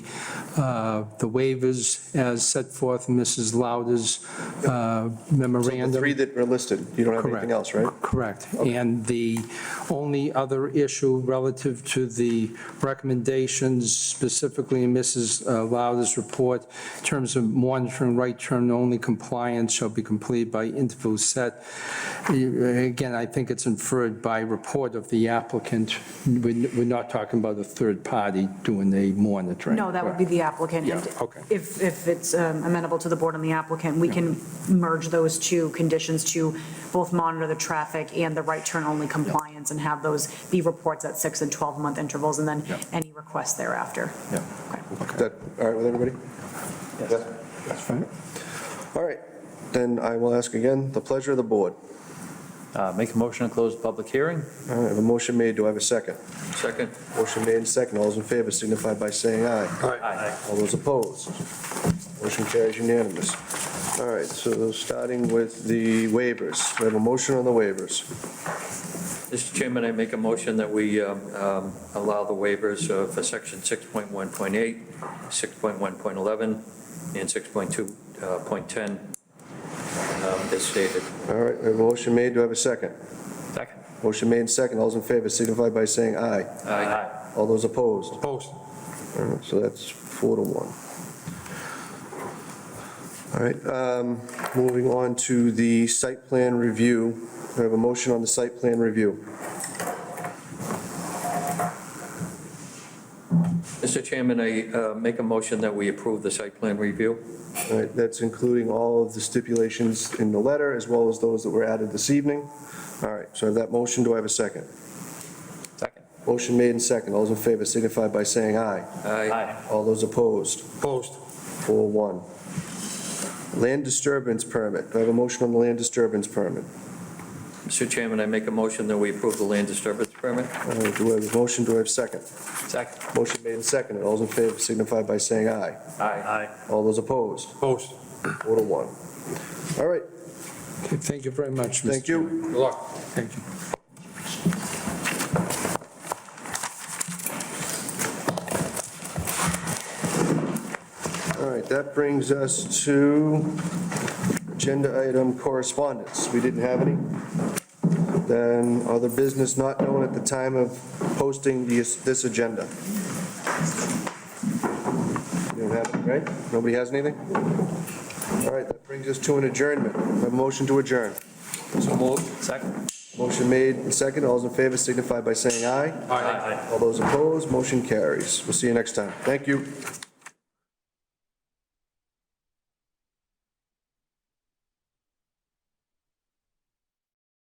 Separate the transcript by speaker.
Speaker 1: uh, the waivers as set forth in Mrs. Lauder's uh,
Speaker 2: The
Speaker 1: memorandum.
Speaker 2: three that are listed, you don't have anything
Speaker 1: Correct.
Speaker 2: else, right?
Speaker 1: Correct. And the only other issue relative to the recommendations specifically in Mrs. Lauder's report, in terms of monitoring right turn only compliance shall be completed by interval set. Again, I think it's inferred by report of the applicant. We're we're not talking about a third party doing the monitoring.
Speaker 3: No, that would be the applicant.
Speaker 1: Yeah,
Speaker 3: And
Speaker 1: okay.
Speaker 3: If, if it's um, amenable to the board and the applicant, we can merge those two conditions to both monitor the traffic and the right turn only compliance and have those be reports at six and 12 month intervals and then
Speaker 2: Yeah.
Speaker 3: any requests thereafter.
Speaker 2: Yeah.
Speaker 3: Okay.
Speaker 2: Is that all right with everybody? Yes.
Speaker 1: That's fine.
Speaker 2: All right, then I will ask again, the pleasure of the board.
Speaker 4: Uh, Make a motion to close the public hearing?
Speaker 2: All right, I have a motion made, do I have a second?
Speaker 4: Second.
Speaker 2: Motion made and second, all those in favor signify by saying aye.
Speaker 4: Aye.
Speaker 2: All those opposed? Motion carries unanimous. All right, so starting with the waivers, we have a motion on the waivers.
Speaker 4: Mr. Chairman, I make a motion that we um, um, allow the waivers uh, for section 6.1.8, 6.1.11, and 6.2.10 uh, um, as stated.
Speaker 2: All right, we have a motion made, do I have a second?
Speaker 4: Second.
Speaker 2: Motion made and second, all those in favor signify by saying aye.
Speaker 4: Aye.
Speaker 2: All those opposed?
Speaker 1: Opposed.
Speaker 2: All right, So that's four to one. All right, um, moving on to the site plan review. We have a motion on the site plan review.
Speaker 4: Mr. Chairman, I uh, make a motion that we approve the site plan review?
Speaker 2: All right, that's including all of the stipulations in the letter as well as those that were added this evening. All right, so I have that motion, do I have a second?
Speaker 4: Second.
Speaker 2: Motion made and second, all those in favor signify by saying aye.
Speaker 4: Aye.
Speaker 2: All those opposed,
Speaker 1: Opposed.
Speaker 2: four one. Land disturbance permit, do I have a motion on the land disturbance permit?
Speaker 4: Mr. Chairman, I make a motion that we approve the land disturbance permit?
Speaker 2: All right, do I have a motion, do I have a second?
Speaker 4: Second.
Speaker 2: Motion made and seconded. All those in favor signify by saying aye.
Speaker 4: Aye.
Speaker 2: All those opposed,
Speaker 1: Opposed.
Speaker 2: four to one. All right,
Speaker 1: Thank you very much. Mr.
Speaker 2: thank you.
Speaker 1: Good luck. Thank you.
Speaker 2: All right, that brings us to agenda item correspondence. We didn't have any. Then other business not known at the time of posting this, this agenda. You don't have any, right? Nobody has anything? All right, that brings us to an adjournment. A motion to adjourn.
Speaker 4: So moved. Second.
Speaker 2: Motion made and seconded. All those in favor signify by saying aye.
Speaker 4: Aye.
Speaker 2: All those opposed, motion carries. We'll see you next time. Thank you.